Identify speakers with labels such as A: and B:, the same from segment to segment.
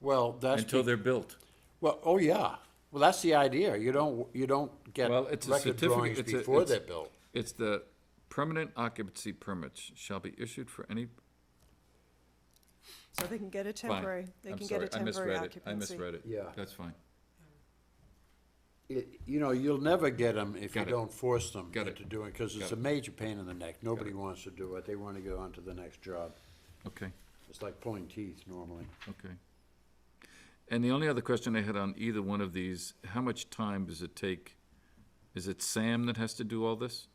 A: Well, that's.
B: until
A: be-
B: they're built.
A: Well, oh, yeah. Well, that's the idea. You don't, you don't get
B: Well, it's a
A: record
B: certificate-
A: drawings
B: it's a-
A: before
B: it's-
A: they're built.
B: It's the permanent occupancy permits shall be issued for any.
C: So they can get a
B: fine.
C: temporary, they
B: I'm
C: can get a
B: sorry, I
C: temporary
B: misread it.
C: occupancy.
B: I misread it.
A: Yeah.
B: That's fine.
A: It- You know, you'll never get them if you
B: Got it.
A: don't force them
B: Got it.
A: into doing, because
B: Got
A: it's
B: it.
A: a major pain in the neck. Nobody wants to do it. They want to go on to the next job.
B: Okay,
A: It's like pulling teeth normally.
B: okay. And the only other question I had on either one of these, how much time does it take? Is it Sam that has to do all this?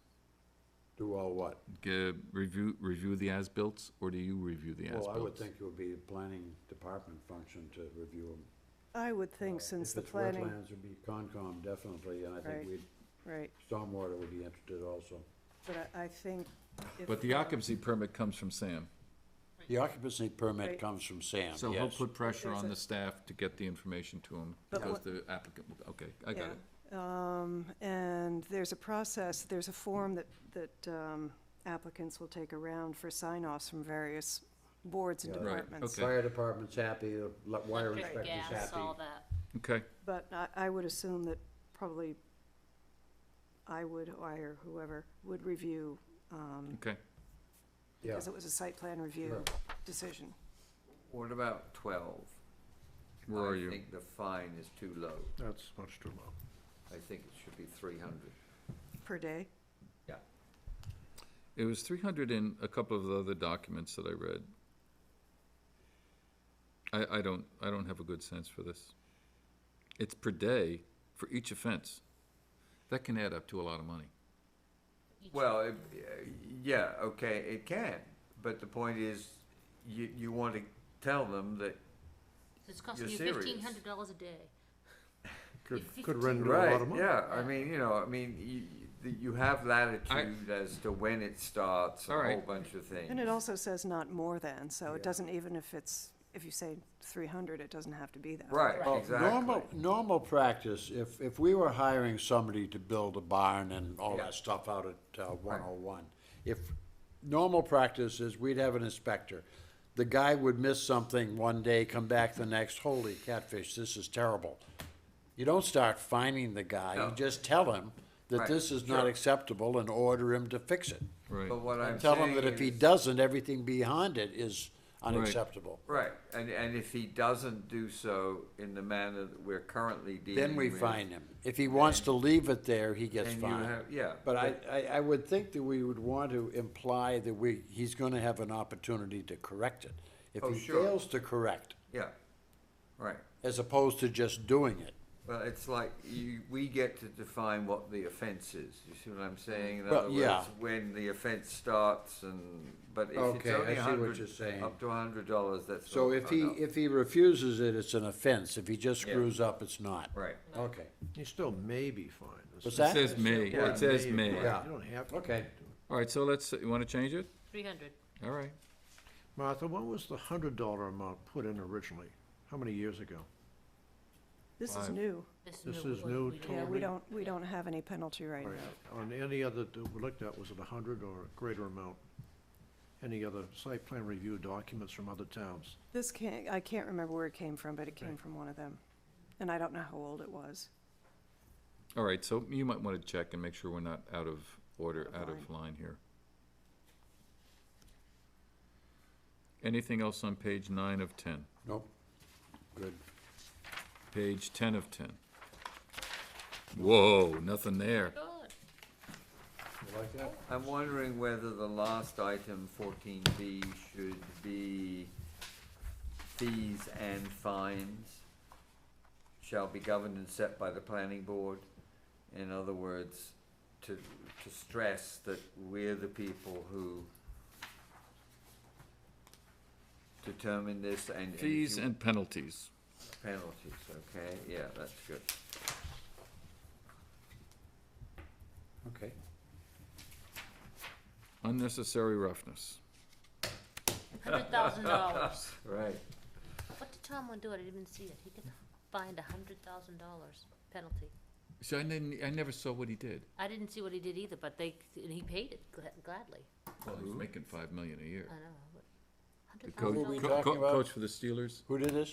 A: Do all what?
B: G- Review, review the as-bills, or do you review the as-bills?
A: Well, I would think it would be the planning department function to review them.
C: I would think since the
A: If
C: planning,
A: it's wetlands, it'd be Concom definitely, and I
C: Right.
A: think we'd,
C: right,
A: stormwater would be interested also.
C: but I, I think if.
B: But the occupancy permit comes from Sam,
A: The occupancy permit
C: Right.
A: comes from Sam,
B: so he'll
A: yes.
B: put pressure
C: There's
B: on
C: a-
B: the staff to get the information to him,
C: But
B: because
C: what-
B: the applicant, will- okay, I got
C: yeah.
B: it.
C: Um, and there's a process, there's a form that, that, um, applicants will take around for sign-offs from various boards and
A: Yeah.
B: Right,
C: departments.
B: okay.
A: Fire department's happy, the le- wire
D: Electric,
A: inspector's
D: gas,
A: happy.
D: all that.
B: Okay,
C: But I, I would assume that probably I would, or I or whoever, would review, um,
B: okay.
A: Yeah,
C: because it was a site plan review
A: Sure.
C: decision.
E: What about twelve?
B: Where are you?
E: I think the fine is too low.
F: That's much too low.
E: I think it should be three hundred.
C: Per day?
E: Yeah.
B: It was three hundred in a couple of the other documents that I read. I, I don't, I don't have a good sense for this. It's per day for each offense. That can add up to a lot of money.
E: Well, it- uh, yeah, okay, it can, but the point is, you, you want to tell them that,
D: It's costing
E: You're
D: you
E: serious.
D: fifteen hundred dollars a day.
F: Could,
D: If
F: could
D: 15
F: run into a
E: right,
F: lot of money.
E: yeah, I mean, you know, I mean, you, you- you have latitude as to when it starts,
B: All
E: a
B: right.
E: whole bunch of things.
C: And it also says not more than, so
A: Yeah.
C: it doesn't, even if it's, if you say three hundred, it doesn't have to be that.
E: Right,
A: Well,
E: exactly.
A: Oh, normal, normal practice, if, if we were hiring somebody to build a barn and all
E: Yeah.
A: that stuff out at uh, 101, if, normal practice is we'd have an inspector. The guy would miss something one day, come back the next, holy catfish, this is terrible. You don't start fining the guy, you
E: No.
A: just tell him that
E: Right,
A: this is not
E: sure.
A: acceptable and order him to fix it.
B: Right.
E: But what I'm
A: And tell him that
E: saying
A: if he
E: is-
A: doesn't, everything behind it is unacceptable.
E: Right, and, and if he doesn't do so in the manner that we're currently dealing
A: Then we
E: with,
A: fine him. If he wants to leave it there, he gets
E: Then you
A: fined.
E: have- yeah,
A: But I, I, I would think that we would want to imply that we, he's gonna have an opportunity to correct it. If
E: Oh,
A: he
E: sure.
A: fails to correct,
E: Yeah, right.
A: as opposed to just doing it.
E: Well, it's like you, we get to define what the offence is. You see what I'm saying? In
A: Well,
E: other
A: yeah.
E: words, when the offence starts, and but if
A: Okay, I
E: it's only
A: see what
E: 100
A: you're saying.
E: up to hundred dollars, that's
A: So
E: not
A: if he,
E: enough.
A: if he refuses it, it's an offense. If he just
E: Yeah.
A: screws up, it's not.
E: right,
A: Okay,
F: You still may be fined.
A: What's
B: It
A: that?
B: says may,
E: Yeah.
B: it says may.
A: Yeah.
F: You don't have to.
A: okay.
B: All right, so let's, you wanna change it?
D: Three hundred.
B: All right.
F: Martha, when was the hundred dollar amount put in originally? How many years ago?
C: This is
B: Five.
C: new.
F: This is new
C: Yeah,
F: Totally.
C: we don't, we don't have any penalty right now.
F: On any other that we looked at, was it a hundred or a greater amount? Any other site plan review documents from other towns?
C: This can't, I can't remember where it came from, but it came
F: Right.
C: from one of them. And I don't know how old it was.
B: All right, so you might wanna check and make sure we're not out of order, out of line here. Anything else on page nine of ten?
A: Nope. Good.
B: Page ten of ten. Whoa, nothing there.
D: Good.
A: You like that?
E: I'm wondering whether the last item, fourteen B, should be fees and fines shall be governed and set by the planning board. In other words, to, to stress that we're the people who determine this and. if
B: Fees
E: you-
B: and penalties.
E: Penalties, okay, yeah, that's good.
A: Okay.
B: Unnecessary roughness.
D: Hundred thousand dollars.
E: Right.
D: What did Tomlin do? I didn't even see it. He could find a hundred thousand dollars penalty.
B: So I didn't, I never saw what he did.
D: I didn't see what he did either, but they, and he paid it gla- gladly.
B: Well, he's making five million a year.
D: I know.
B: The
D: but $100,000.
B: coach,
A: we
B: co-
A: talking
B: co-
A: about?
B: coach for the Steelers?
A: Who did this?